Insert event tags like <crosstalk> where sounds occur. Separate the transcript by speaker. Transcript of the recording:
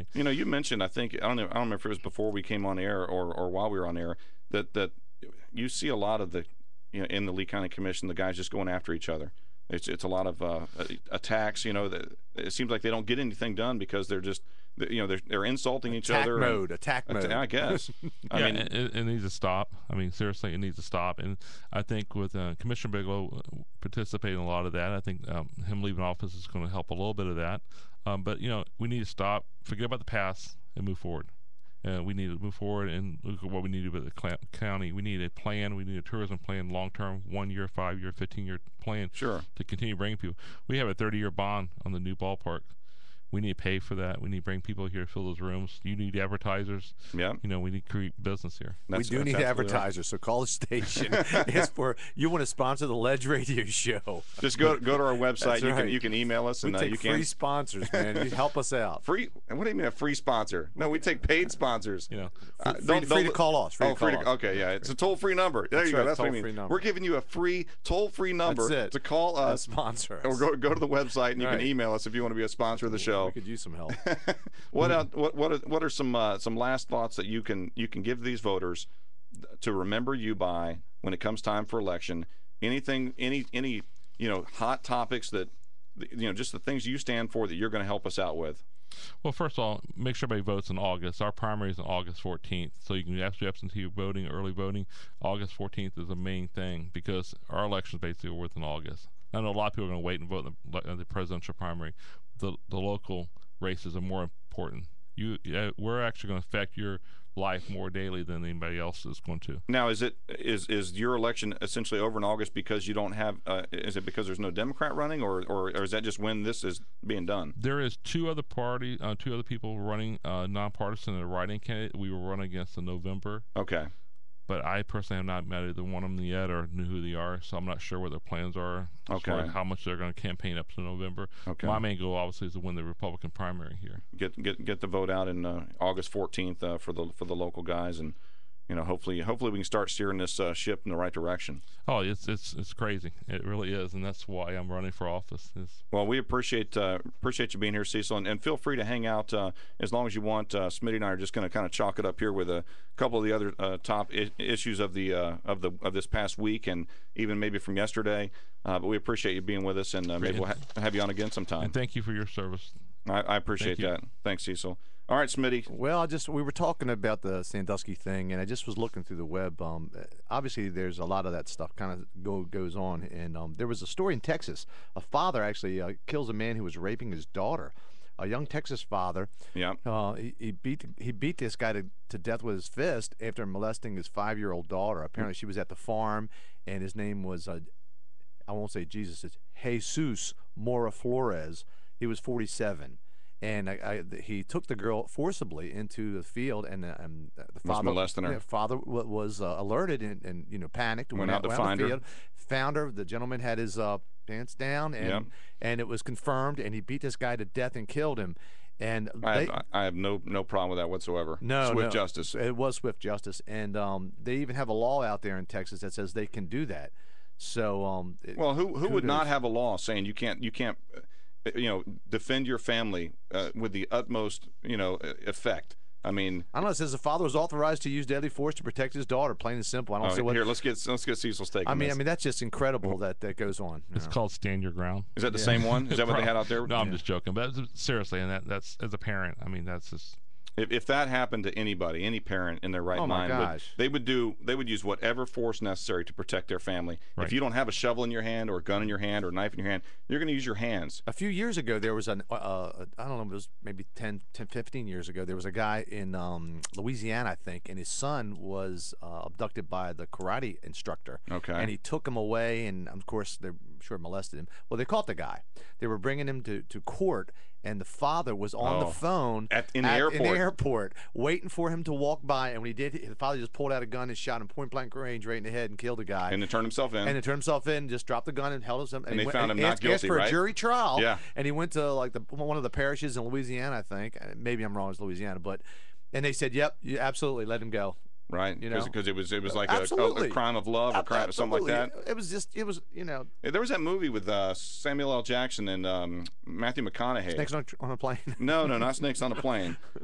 Speaker 1: You know, you mentioned I think I don't know I don't remember if it was before we came on air or or while we were on air that that you see a lot of the you know in the Lee County Commission the guys just going after each other. It's it's a lot of uh, attacks. You know, that it seems like they don't get anything done because they're just you know they're they're insulting each
Speaker 2: attack
Speaker 1: other. and-
Speaker 2: mode, attack mode.
Speaker 1: I
Speaker 2: <laughs>
Speaker 1: guess. I
Speaker 3: yeah,
Speaker 1: mean,
Speaker 3: it, it- it needs to stop. I mean, seriously, it needs to stop. And I think with uh, Commissioner Bigelow uh, participating in a lot of that, I think um, him leaving office is going to help a little bit of that. Um, but you know, we need to stop, forget about the past, and move forward. Uh, we need to move forward and look at what we need to do with the cl- county. We need a plan. We need a tourism plan, long term, one year, five year, fifteen year plan
Speaker 1: sure.
Speaker 3: to continue bringing people. We have a 30 year bond on the new ballpark. We need to pay for that. We need to bring people here to fill those rooms. You need advertisers.
Speaker 1: Yeah.
Speaker 3: You know, we need to create business here.
Speaker 1: That's-
Speaker 2: we do
Speaker 1: that's absolutely
Speaker 2: need
Speaker 1: right.
Speaker 2: advertisers, so call
Speaker 1: <laughs>
Speaker 2: the station. it's for you want to sponsor the Ledge Radio Show.
Speaker 1: Just go go to our website.
Speaker 2: That's
Speaker 1: you can
Speaker 2: right.
Speaker 1: you can email us
Speaker 2: We
Speaker 1: and uh,
Speaker 2: take
Speaker 1: you
Speaker 2: free
Speaker 1: can
Speaker 2: sponsors, man. You help us out.
Speaker 1: free. And what do you mean a free sponsor? No, we take paid sponsors.
Speaker 3: You know,
Speaker 1: Uh,
Speaker 2: Free,
Speaker 1: don't-
Speaker 2: free
Speaker 1: don't-
Speaker 2: to call us. Free
Speaker 1: oh,
Speaker 2: to call
Speaker 1: free
Speaker 2: us.
Speaker 1: to, okay, yeah, it's a toll-free number. There
Speaker 2: That's
Speaker 1: you go.
Speaker 2: right,
Speaker 1: That's what I
Speaker 2: toll-free
Speaker 1: mean.
Speaker 2: number.
Speaker 1: We're giving you a free toll-free number
Speaker 2: That's it.
Speaker 1: to call
Speaker 2: Uh,
Speaker 1: us
Speaker 2: sponsor us.
Speaker 1: or oh, go, oh. go to the website and you
Speaker 2: Right.
Speaker 1: can email us if you want to be a sponsor of the
Speaker 2: We
Speaker 1: show.
Speaker 2: could use some
Speaker 1: <laughs>
Speaker 2: help.
Speaker 1: what out, what what are, what are some uh, some last thoughts that you can you can give these voters to remember you by when it comes time for election? Anything any any you know hot topics that you know just the things you stand for that you're going to help us out with.
Speaker 3: well, first of all, make sure everybody votes in August. Our primary is on August 14th, so you can actually absentee voting, early voting. August 14th is the main thing because our elections basically are worth in August. I know a lot of people are going to wait and vote in the, le- in the presidential primary. The the local races are more important. You, uh, we're actually going to affect your life more daily than anybody else is going to.
Speaker 1: Now, is it is is your election essentially over in August because you don't have? Uh, is it because there's no Democrat running, or, or or is that just when this is being done?
Speaker 3: There is two other party, uh, two other people running uh, nonpartisan and a writing candidate. We were running against in November,
Speaker 1: Okay,
Speaker 3: but I personally have not met either one of them yet or knew who they are, so I'm not sure what their plans are. As far
Speaker 1: Okay.
Speaker 3: as how much they're going to campaign up to November.
Speaker 1: okay.
Speaker 3: My main goal, obviously, is to win the Republican primary here.
Speaker 1: Get get get the vote out in uh, August 14th uh, for the for the local guys, and you know hopefully hopefully we can start steering this uh, ship in the right direction.
Speaker 3: Oh, it's it's it's crazy. It really is, and that's why I'm running for office. Is
Speaker 1: Well, we appreciate uh, appreciate you being here, Cecil, and, and feel free to hang out uh, as long as you want. Uh, Smitty and I are just going to kind of chalk it up here with a couple of the other uh, top I- issues of the uh, of the of this past week, and even maybe from yesterday. Uh, but we appreciate you being with us, and uh, maybe we'll ha- have you on again sometime.
Speaker 3: and thank you for your service.
Speaker 1: I, I appreciate
Speaker 3: Thank you.
Speaker 1: that. Thanks, Cecil. All right, Smitty.
Speaker 2: Well, I just we were talking about the Sandusky thing, and I just was looking through the web. Um, uh, obviously, there's a lot of that stuff kind of go, goes on, and um, there was a story in Texas. A father actually uh, kills a man who was raping his daughter. A young Texas father,
Speaker 1: Yeah.
Speaker 2: uh, he, he beat he beat this guy to, to death with his fist after molesting his five year old daughter. Apparently, she was at the farm, and his name was uh, I won't say Jesus, it's Jesus Mora Flores. He was 47. And I, I, th- he took the girl forcibly into the field, and, uh, and uh, the father
Speaker 1: molesting her.
Speaker 2: the father wa- was uh, alerted and, and you know panicked.
Speaker 1: Went out to find her.
Speaker 2: field, Found her. The gentleman had his uh, pants down, and
Speaker 1: Yep.
Speaker 2: and it was confirmed. And he beat this guy to death and killed him. And
Speaker 1: I
Speaker 2: they,
Speaker 1: have, I have no no problem with that whatsoever.
Speaker 2: no,
Speaker 1: Swift
Speaker 2: no.
Speaker 1: justice.
Speaker 2: It was swift justice, and um, they even have a law out there in Texas that says they can do that. So um, it-
Speaker 1: Well, who who would not
Speaker 2: Kudos.
Speaker 1: have a law saying you can't you can't uh, you know defend your family uh, with the utmost you know uh, effect? I mean,
Speaker 2: I don't know. It says the father was authorized to use deadly force to protect his daughter. Plain and simple. I don't
Speaker 1: oh,
Speaker 2: see what.
Speaker 1: here let's get let's get Cecil's take.
Speaker 2: I
Speaker 1: on
Speaker 2: mean, I
Speaker 1: this.
Speaker 2: mean, that's just incredible that that goes on. you
Speaker 3: It's
Speaker 2: know.
Speaker 3: called Stand Your Ground.
Speaker 1: is that the same one? Is that what they
Speaker 2: <laughs>
Speaker 1: had out there?
Speaker 3: No, I'm just joking. But that's- seriously, and that, that's as a parent, I mean, that's just
Speaker 1: If, if that happened to anybody, any parent in their right
Speaker 2: Oh, my
Speaker 1: mind, would-
Speaker 2: gosh.
Speaker 1: they would do they would use whatever force necessary to protect their family. If
Speaker 3: Right.
Speaker 1: you don't have a shovel in your hand or a gun in your hand or a knife in your hand, you're going to use your hands.
Speaker 2: A few years ago, there was an uh, uh, I don't know, it was maybe 10, 10, 15 years ago. There was a guy in um, Louisiana, I think, and his son was uh, abducted by the karate instructor.
Speaker 1: Okay.
Speaker 2: And he took him away, and of course, they're sure molested him. Well, they caught the guy. They were bringing him to, to court, and the father was on
Speaker 1: Oh.
Speaker 2: the phone
Speaker 1: At- in the
Speaker 2: in
Speaker 1: airport.
Speaker 2: the airport, waiting for him to walk by. And when he did, the father just pulled out a gun and shot him point blank range right in the head and killed the guy.
Speaker 1: And to turn himself in.
Speaker 2: and he turned himself in, just dropped the gun and held himself.
Speaker 1: And
Speaker 2: he
Speaker 1: they
Speaker 2: went-
Speaker 1: found him not
Speaker 2: asked,
Speaker 1: guilty,
Speaker 2: asked for
Speaker 1: right?
Speaker 2: a jury trial.
Speaker 1: Yeah.
Speaker 2: and he went to like the one of the parishes in Louisiana, I think. Uh, Maybe I'm wrong, it's Louisiana, but and they said, "Yep, you absolutely let him go."
Speaker 1: right?
Speaker 2: you know.
Speaker 1: because it was it was like a, a, a
Speaker 2: Absolutely.
Speaker 1: crime of love or crime something like that.
Speaker 2: Absolutely. It was just, it was you know,
Speaker 1: There was that movie with uh, Samuel L. Jackson and um, Matthew McConaughey.
Speaker 2: next on, on a plane.
Speaker 1: No, no, not snakes on a plane.